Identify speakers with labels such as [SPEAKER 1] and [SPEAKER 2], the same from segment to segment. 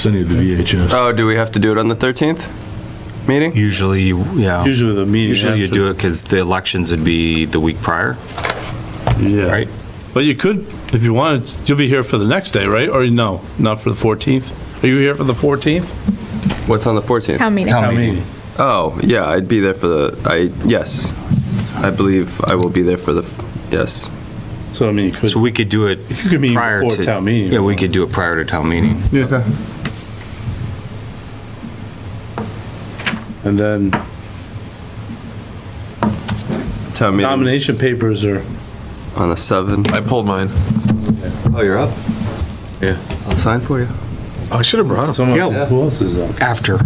[SPEAKER 1] send you the VHS.
[SPEAKER 2] Oh, do we have to do it on the 13th meeting?
[SPEAKER 3] Usually, you- yeah.
[SPEAKER 4] Usually the meeting.
[SPEAKER 3] Oh. Usually you do it because the elections would be the week prior,
[SPEAKER 4] Yeah.
[SPEAKER 3] right?
[SPEAKER 4] But you could, if you wanted, you'll be here for the next day, right? Or no, not for the 14th? Are you here for the 14th?
[SPEAKER 2] What's on the 14th?
[SPEAKER 5] Town meeting.
[SPEAKER 3] Town meeting.
[SPEAKER 2] Oh, yeah, I'd be there for the, I, yes. I believe I will be there for the, yes.
[SPEAKER 4] So I mean, you could,
[SPEAKER 3] So we could do it
[SPEAKER 4] you could meet
[SPEAKER 3] prior
[SPEAKER 4] before town
[SPEAKER 3] to.
[SPEAKER 4] meeting.
[SPEAKER 3] Yeah, we could do it prior to town meeting.
[SPEAKER 2] Okay.
[SPEAKER 4] And then
[SPEAKER 2] Town meeting.
[SPEAKER 4] nomination papers are,
[SPEAKER 2] On the 7th.
[SPEAKER 6] I pulled mine.
[SPEAKER 2] Oh, you're up?
[SPEAKER 6] Yeah.
[SPEAKER 2] I'll sign for you.
[SPEAKER 6] I should have brought
[SPEAKER 4] someone, who else is up?
[SPEAKER 3] After.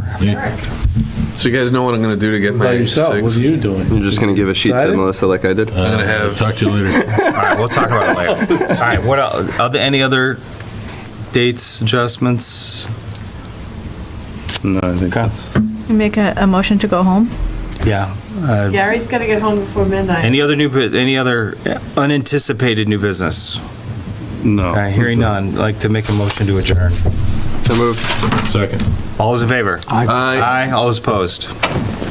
[SPEAKER 6] So you guys know what I'm gonna do to get my
[SPEAKER 4] By yourself, what are
[SPEAKER 6] six.
[SPEAKER 4] you doing?
[SPEAKER 2] You're just gonna give a sheet to
[SPEAKER 4] Excited?
[SPEAKER 2] Melissa like I did?
[SPEAKER 6] I'm gonna have
[SPEAKER 1] Uh, Talk to you later.
[SPEAKER 3] All right, we'll talk about it later. All right, what, el- are there any other dates, adjustments?
[SPEAKER 4] No, I think that's.
[SPEAKER 5] Make a, a motion to go home.
[SPEAKER 3] Yeah.
[SPEAKER 7] Gary's gotta get home before midnight.
[SPEAKER 3] Any other new, bu- any other unanticipated new business?
[SPEAKER 4] No.
[SPEAKER 3] All right, hearing none, like to make a motion to adjourn.
[SPEAKER 2] So moved.
[SPEAKER 1] Second.
[SPEAKER 3] All those in favor?
[SPEAKER 6] Aye.
[SPEAKER 3] Aye, all those opposed?